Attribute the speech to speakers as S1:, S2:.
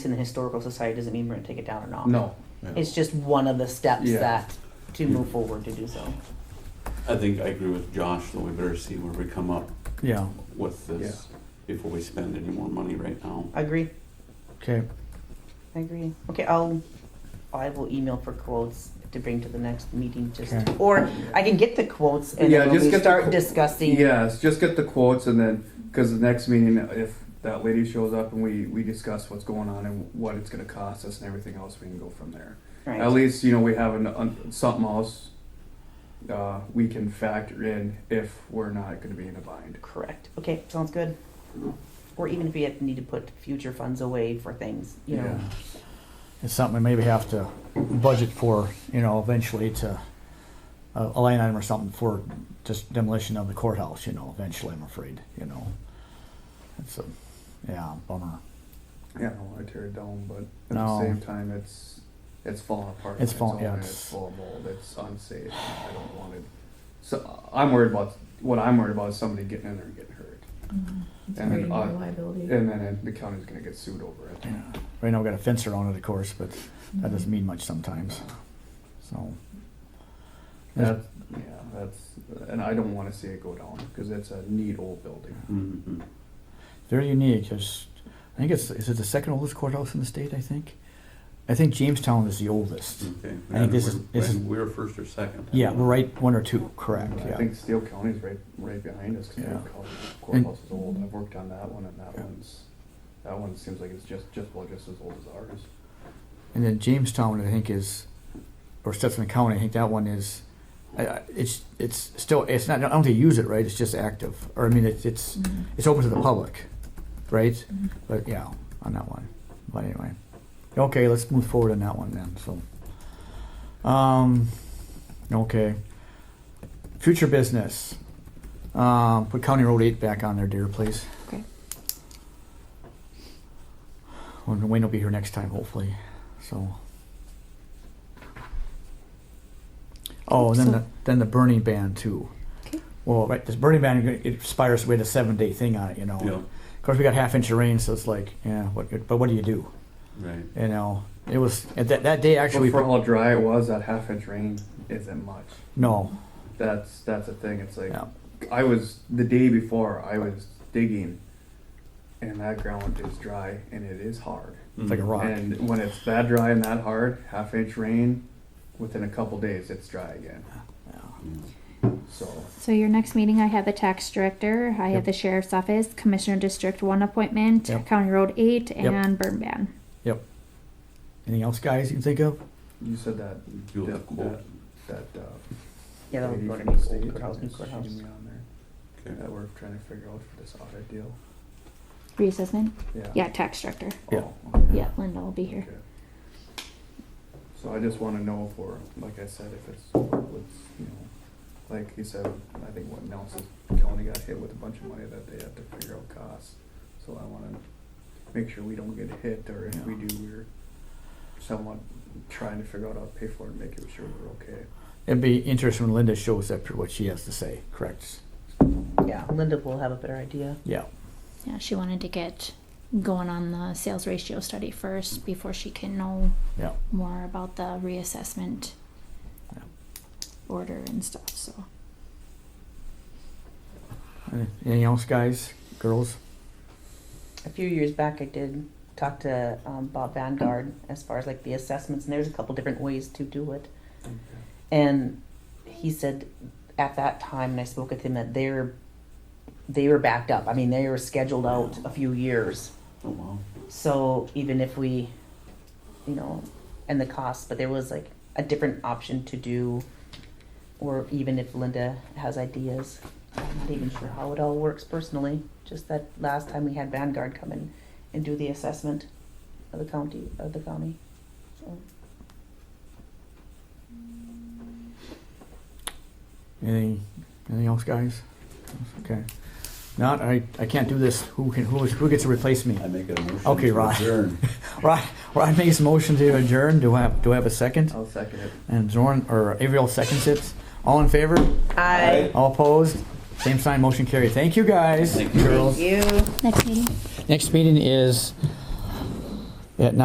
S1: in the historical society doesn't mean we're going to take it down or not.
S2: No.
S1: It's just one of the steps
S2: Yeah.
S1: that to move forward to do so.
S3: I think I agree with Josh, that we better see where we come up
S4: Yeah,
S3: with this before we spend any more money right now.
S1: I agree.
S4: okay.
S1: I agree. Okay, I'll I will email for quotes to bring to the next meeting just
S4: Okay.
S1: or I can get the quotes and
S2: Yeah,
S1: then when
S2: just
S1: we
S2: get the
S1: start
S2: qu-
S1: discussing
S2: Yes, just get the quotes and then, because the next meeting, if that lady shows up and we, we discuss what's going on and what it's gonna cost us and everything else, we can go from there.
S1: right.
S2: At least, you know, we have an, un- something else, uh, we can factor in if we're not gonna be in a bind.
S1: Correct. Okay, sounds good. Or even if we have, need to put future funds away for things, you know.
S2: Yeah.
S4: It's something we maybe have to budget for, you know, eventually to uh, a line item or something for just demolition of the courthouse, you know, eventually, I'm afraid, you know. It's a, yeah, bummer.
S2: Yeah, I don't wanna tear it down, but at
S4: No.
S2: the same time, it's, it's falling apart. on
S4: It's falling-
S2: own
S4: yeah,
S2: and
S4: it's-
S2: It's full of mold, it's unsafe, and I don't want it. So, I'm worried about, what I'm worried about is somebody getting in there and getting hurt.
S5: Mm-hmm. It's
S2: And
S5: creating
S2: I-
S5: more liability.
S2: And then it- the county's gonna get sued over it.
S4: Yeah. Right now, we got a fence around it, of course, but that doesn't mean much sometimes, so.
S2: That's, yeah, that's, and I don't wanna see it go down, cause it's a neat old building.
S3: Mhm.
S4: Very unique. There's, I think it's is it the second oldest courthouse in the state. I think, I think Jamestown is the oldest.
S3: Okay.
S4: I think this is- this is-
S3: We were first or second.
S4: Yeah, we're right one or two. Correct.
S2: I
S4: Yeah.
S2: think Steele County's right, right behind us, cause
S4: Yeah.
S2: the courthouse is old, I've worked on that one, and that
S4: Yeah.
S2: one's, that one seems like it's just, just, well, just as old as ours.
S4: And then Jamestown, I think, is, or Stetson County. I think that one is. I- I- It's it's still it's not. I don't think they use it right. It's just active, or I mean, it's it's
S5: Mhm.
S4: it's open to the public, right?
S5: Mhm.
S4: But yeah, on that one. But anyway, okay, let's move forward on that one then. So, um, okay, future business. Um, put County Road Eight back on there, dear, please.
S5: Okay.
S4: When Wayne will be here next time, hopefully. So. Oh, and then
S5: So-
S4: the then the burning ban too.
S5: Okay.
S4: Well, right, this burning ban it expires with a seven day thing on it, you know.
S3: Yeah,
S4: Of course, we got half inch of rain, so it's like, yeah, what, but what do you do?
S3: right.
S4: You know, it was at that, that day actually.
S2: But for how dry it was, that half inch rain isn't much.
S4: no,
S2: That's, that's the thing, it's like,
S4: yeah,
S2: I was, the day before, I was digging, and that ground is dry, and it is hard.
S4: it's
S3: Mm.
S4: like a rock.
S2: And when it's that dry and that hard, half inch rain, within a couple days, it's dry again. So,
S5: So your next meeting, I had the tax director, I
S4: Yep.
S5: had the sheriff's office, commissioner district one appointment,
S4: Yep.
S5: county road eight,
S4: Yep.
S5: and burn ban.
S4: Anything else, guys? You can think of?
S2: you said that,
S3: You'll have
S2: Yeah.
S3: quote.
S2: that, uh.
S1: Yeah, that'll
S2: lady
S1: go to
S2: from the
S1: new
S2: state
S1: old courthouse, new
S2: is
S1: courthouse.
S2: shooting me on there,
S3: Okay.
S2: That we're trying to figure out for this audit deal.
S5: Were you listening?
S2: Yeah.
S5: Yeah, tax director.
S4: Yeah.
S2: Oh, okay.
S5: Yeah, Linda will be here.
S2: Okay. So I just wanna know if we're, like I said, if it's, what's, you know, like he said, I think what Nelson County got hit with a bunch of money that they have to figure out costs. So I wanna make sure we don't get hit, or if we
S4: Yeah.
S2: do, we're somewhat trying to figure out how to pay for it and make sure we're okay.
S4: It'd be interesting when Linda shows up for what she has to say. Correct.
S1: Yeah, Linda will have a better idea.
S4: Yeah.
S6: Yeah, she wanted to get going on the sales ratio study first before she can know
S4: Yeah.
S6: more about the reassessment
S4: Yeah.
S6: order and stuff. So
S4: Anything else, guys, girls?
S1: A few years back, I did talk to um, Bob Vanguard as far as like the assessments, and there's a couple different ways to do it. And he said at that time, and I spoke with him that they're they were backed up. I mean, they were scheduled out a few years.
S3: Oh, wow.
S1: So even if we, you know, and the cost, but there was like a different option to do, or even if Linda has ideas, I'm not even sure how it all works personally. Just that last time we had Vanguard come in and do the assessment of the county of the county. So
S4: Anything? Anything else, guys? Okay. Not. I. I can't do this. Who can? Who is? Who gets to replace me?
S3: I make a motion.
S4: Okay,
S3: to
S4: Rod.
S3: adjourn.
S4: Rod. Rod makes a motion to adjourn. Do I? Have, do I have a second?
S2: I'll second it.
S4: And Zorn or Avriel seconds it. All in favor?
S1: I
S4: All opposed? Same sign. Motion carried. Thank you, guys. Thank you. Girls.
S1: you.
S6: next meeting.
S4: Next meeting is at